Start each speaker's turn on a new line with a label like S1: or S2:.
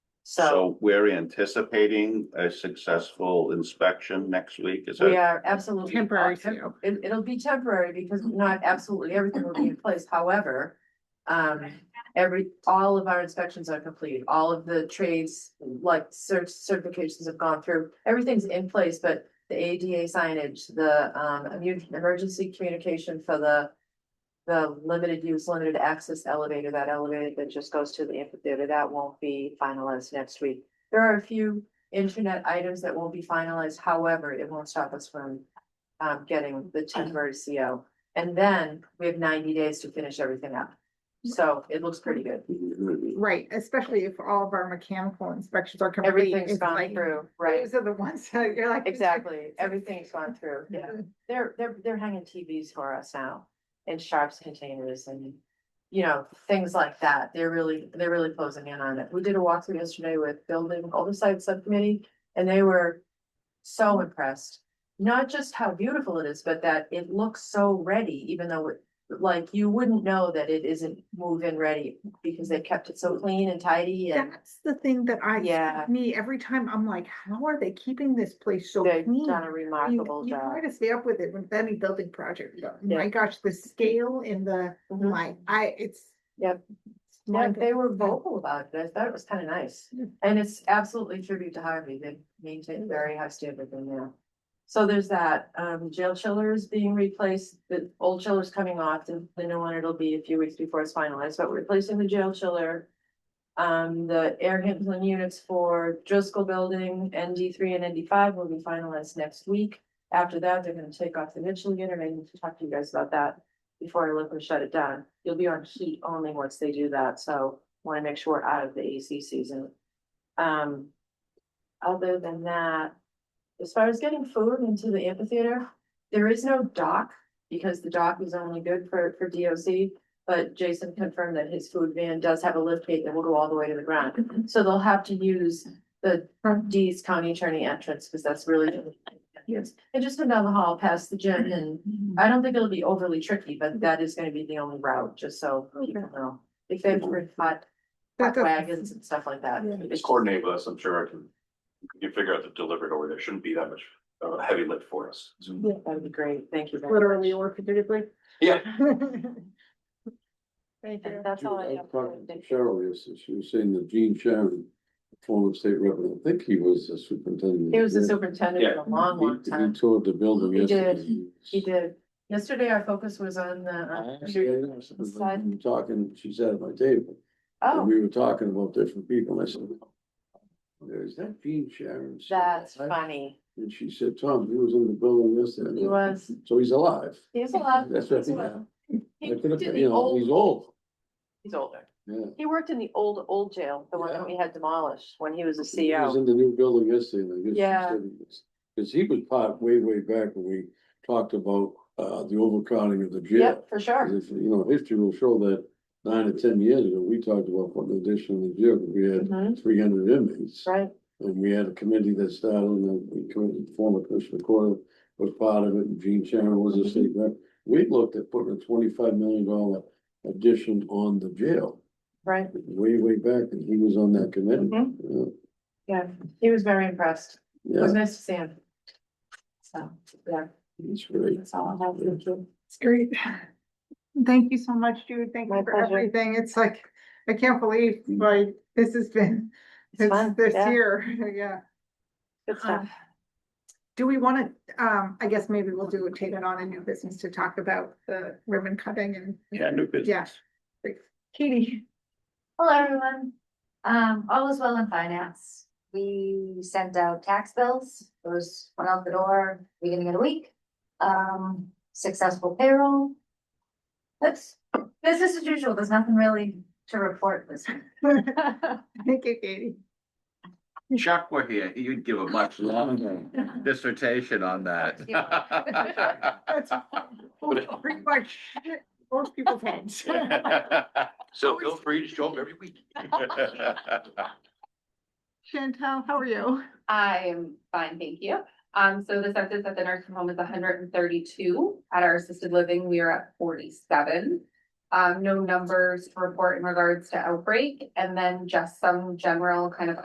S1: So
S2: So we're anticipating a successful inspection next week, is
S1: we
S2: that?
S1: are absolutely.
S3: Temporary too.
S1: It, it'll be temporary because not absolutely everything will be in place. However, um, every, all of our inspections are complete. All of the trades, like cert- certifications have gone through. Everything's in place, but the ADA signage, the, um, immu- emergency communication for the the limited use, limited access elevator, that elevator that just goes to the amphitheater, that won't be finalized next week. There are a few internet items that won't be finalized. However, it won't stop us from um, getting the temporary CO. And then we have ninety days to finish everything up.
S3: Mm-hmm.
S1: So it looks pretty good.
S3: Right, especially if all of our mechanical inspections are complete.
S1: Everything's
S3: it's
S1: gone
S3: like,
S1: through, right?
S3: Those are the ones that you're like.
S1: Exactly. Everything's gone through. Yeah.
S3: uh,
S1: They're, they're, they're hanging TVs for us now in Sharps containers and, you know, things like that. They're really, they're really closing in on it. We did a walkthrough yesterday with building oversight subcommittee and they were so impressed. Not just how beautiful it is, but that it looks so ready, even though it, like, you wouldn't know that it isn't move-in ready because they kept it so clean and tidy and
S3: That's the thing that I,
S1: Yeah.
S3: me, every time I'm like, how are they keeping this place so
S1: they've
S3: clean?
S1: done a
S3: I mean,
S1: remarkable
S3: You
S1: job.
S3: try to stay up with it with any building project. but
S1: Yeah.
S3: My gosh, the scale and the,
S1: Mhm.
S3: like, I, it's.
S1: Yep.
S3: it's
S1: Yeah,
S3: mind-
S1: they were vocal about it. I thought it was kind of nice.
S3: Yeah.
S1: And it's absolutely tribute to Harvey. They maintain very high standard in there. So there's that, um, jail chiller is being replaced, the old chiller is coming off, the, the new one, it'll be a few weeks before it's finalized, but we're replacing the jail chiller. Um, the air handling units for Driscoll Building, ND three and ND five will be finalized next week. After that, they're gonna take off the Mitchell unit, I need to talk to you guys about that before I look and shut it down. You'll be on heat only once they do that, so wanna make sure we're out of the AC season. Um, other than that, as far as getting food into the amphitheater, there is no dock because the dock is only good for, for DOC. But Jason confirmed that his food van does have a lift gate that will go all the way to the ground. So they'll have to use the D's county attorney entrance because that's really. Yes, and just come down the hall past the gym and I don't think it'll be overly tricky, but that is gonna be the only route, just so people know. If they've heard hot,
S3: That
S1: hot
S3: doesn't-
S1: wagons and stuff like that.
S3: Yeah.
S4: Just coordinate with us, I'm sure I can, you can figure out the delivery over there, shouldn't be that much uh heavy lift for us.
S1: That would be great, thank you. very
S3: Literally
S1: much.
S3: or figuratively.
S4: Yeah.
S3: Thank
S1: And
S3: you.
S1: That's all I
S5: I
S1: have.
S5: was talking to Cheryl, yes, she was saying that Gene Sharon, former state rep, and I think he was the superintendent.
S1: He was the superintendent
S4: Yeah.
S1: for a long,
S5: He-
S1: long time.
S5: He toured the building
S1: He did.
S5: yesterday.
S1: He did. Yesterday, our focus was on the.
S5: I
S1: uh,
S5: asked her, I said, "But
S1: Slide.
S5: I'm Talking, she sat at my table, and
S1: Oh,
S5: we were talking about different people, and I said. Is that Gene Sharon?
S1: that's funny.
S5: And she said, Tom, he was in the building yesterday.
S1: He was,
S5: So he's alive.
S1: he's a lot.
S5: That's what I think. I
S1: He
S5: could've-
S1: did the
S5: You know,
S1: old,
S5: he's old,
S1: he's older.
S5: yeah.
S1: He worked in the old, old jail, the one that
S5: Yeah.
S1: we had demolished when he was a E
S5: He was
S1: CO.
S5: in the new building yesterday, and I guess. he
S1: Yeah.
S5: said he was- Cause he was part way, way back when we talked about, uh, the overcrowding of the jail.
S1: Yep, for sure.
S5: 'Cause if, You know, history will show that nine or ten years ago, we talked about putting an addition in the jail, because we had
S1: Mhm,
S5: three hundred inmates.
S1: Right,
S5: And we had a committee that started, and the committee, former Commissioner Coyle was part of it, and Gene Sharon was
S1: Mm-hmm.
S5: a state rep. We looked at putting a twenty-five million dollar addition on the jail,
S1: right.
S5: way, way back, and he was on that committee.
S1: Mhm.
S5: Yeah.
S1: Yeah, he was very impressed. It was
S5: Yeah,
S1: nice to see him. So, yeah,
S5: he's great.
S1: that's all I have. Thank you.
S3: It's great. Thank you so much, Jude. Thank
S1: My
S3: you for
S1: pleasure.
S3: everything. It's like, I can't believe like this has been,
S1: It's
S3: since
S1: fun,
S3: this
S1: yeah.
S3: year, yeah.
S1: Good stuff.
S3: Um, Do we want to, um, I guess maybe we'll do, take it on a new business to talk about the ribbon cutting and,
S2: Yeah, new
S3: yeah. Katie,
S6: Hello, everyone. Um, all is well in finance. We sent out tax bills. Those went out the door beginning of the week. Um, successful payroll. That's business as usual. There's nothing really to report this week.
S3: thank you, Katie.
S7: Chuck were here, he'd give a much longer dissertation on that.
S3: That's pretty much most people's heads.
S4: So feel free to show up every week.
S3: Chantel, how are you?
S8: I am fine, thank you. Um, so the census at the nursing home is hundred and thirty-two. At our assisted living, we are at forty-seven. Um, no numbers to report in regards to outbreak, and then just some general kind of